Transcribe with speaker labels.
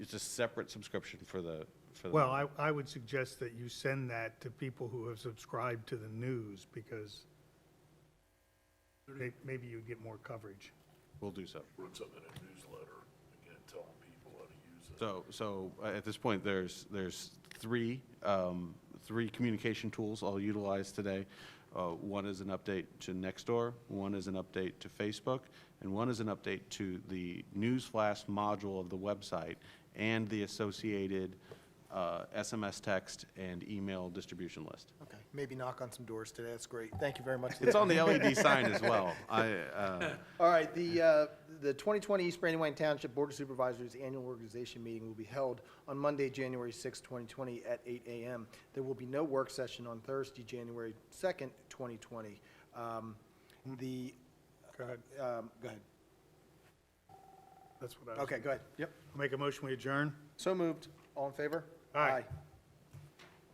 Speaker 1: It's a separate subscription for the, for the.
Speaker 2: Well, I, I would suggest that you send that to people who have subscribed to the news because may- maybe you get more coverage.
Speaker 1: We'll do so.
Speaker 3: Brooks up in a newsletter, again, telling people how to use it.
Speaker 1: So, so uh, at this point, there's, there's three, um, three communication tools all utilized today. Uh, One is an update to Nextdoor, one is an update to Facebook, and one is an update to the newsflash module of the website and the associated uh, SMS text and email distribution list.
Speaker 4: Okay, maybe knock on some doors today, that's great. Thank you very much.
Speaker 1: It's on the LED sign as well. I, uh,
Speaker 4: All right, the, uh, the 2020 East Brandywine Township Board of Supervisors Annual Organization Meeting will be held on Monday, January 6, 2020, at 8 a.m. There will be no work session on Thursday, January 2nd, 2020. Um, The,
Speaker 2: Go ahead.
Speaker 4: um, go ahead.
Speaker 2: That's what I was.
Speaker 4: Okay, go ahead. Yep.
Speaker 2: Make a motion, we adjourn?
Speaker 4: So moved. All in favor?
Speaker 2: Aye.